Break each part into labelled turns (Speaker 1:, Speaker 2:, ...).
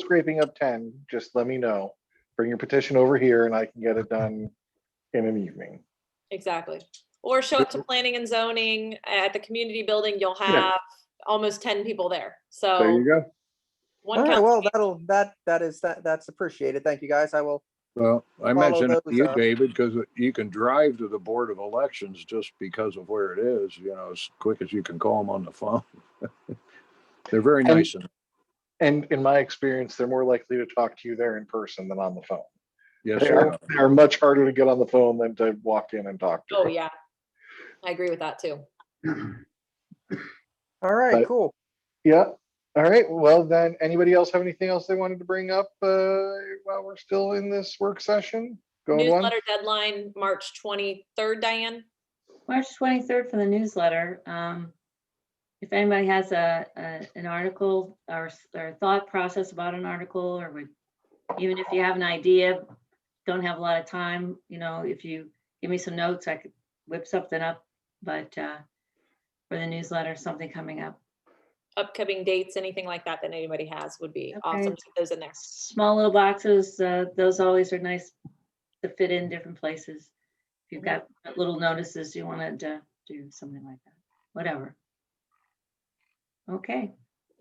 Speaker 1: scraping up ten, just let me know. Bring your petition over here and I can get it done in an evening.
Speaker 2: Exactly. Or show up to planning and zoning at the community building, you'll
Speaker 1: Yeah.
Speaker 2: have almost ten people there,
Speaker 1: There
Speaker 2: so.
Speaker 1: you go.
Speaker 2: one
Speaker 3: All right,
Speaker 2: council
Speaker 3: well,
Speaker 2: meeting-
Speaker 3: that'll, that, that is, that, that's appreciated. Thank you, guys. I will.
Speaker 4: Well, I
Speaker 3: Follow
Speaker 4: mentioned it to
Speaker 3: those
Speaker 4: you,
Speaker 3: up.
Speaker 4: David, because you can drive to the Board of Elections just because of where it is, you know, as quick as you can call them on the phone. They're very
Speaker 1: And-
Speaker 4: nice and,
Speaker 1: And in my experience, they're more likely to talk to you there in person than on the phone.
Speaker 4: yes,
Speaker 1: They
Speaker 4: sir.
Speaker 1: are, they are much harder to get on the phone than to walk in and talk to.
Speaker 2: Oh, yeah. I agree with that too.
Speaker 3: All right,
Speaker 1: But-
Speaker 3: cool.
Speaker 1: Yeah. All right. Well, then, anybody else have anything else they wanted to bring up uh, while we're still in this work session? Going once,
Speaker 2: Newsletter deadline, March twenty-third, Diane?
Speaker 5: March twenty-third for the newsletter. Um, if anybody has a, a, an article or, s- or thought process about an article or would, even if you have an idea, don't have a lot of time, you know, if you give me some notes, I could whip something up, but, uh, for the newsletter, something coming up.
Speaker 2: Upcoming dates, anything like that that anybody has would be awesome.
Speaker 5: Okay.
Speaker 2: to Those in there.
Speaker 5: Small little boxes, uh, those always are nice to fit in different places. If you've got little notices, you wanted to do something like that, whatever. Okay.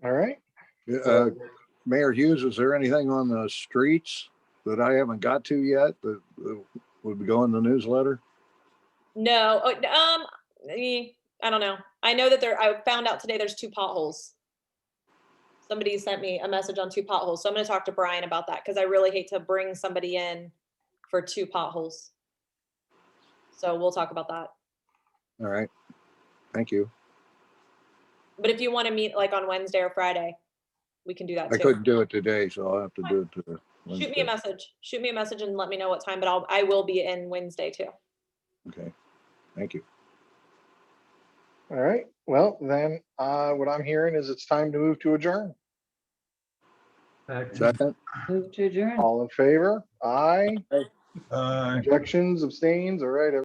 Speaker 1: All right.
Speaker 4: Uh, Mayor Hughes, is there anything on the streets that I haven't got to yet that that would go in the newsletter?
Speaker 2: No, oh, d- um, eh, I don't know. I know that there, I found out today there's two potholes. Somebody sent me a message on two potholes, so I'm gonna talk to Brian about that, because I really hate to bring somebody in for two potholes. So we'll talk about that.
Speaker 4: All right. Thank you.
Speaker 2: But if you want to meet like on Wednesday or Friday, we can do that
Speaker 4: I
Speaker 2: too.
Speaker 4: couldn't do it today, so I'll have to do it. to-
Speaker 2: Shoot me a
Speaker 4: Wednesday.
Speaker 2: message, shoot me a message and let me know what time, but I'll, I will be in Wednesday too.
Speaker 4: Okay. Thank you.
Speaker 1: All right. Well, then, uh, what I'm hearing is it's time to move to adjourn.
Speaker 4: Second?
Speaker 5: Move to adjourn.
Speaker 1: All in favor? Aye.
Speaker 6: Uh,
Speaker 1: Objections, abstains? All right.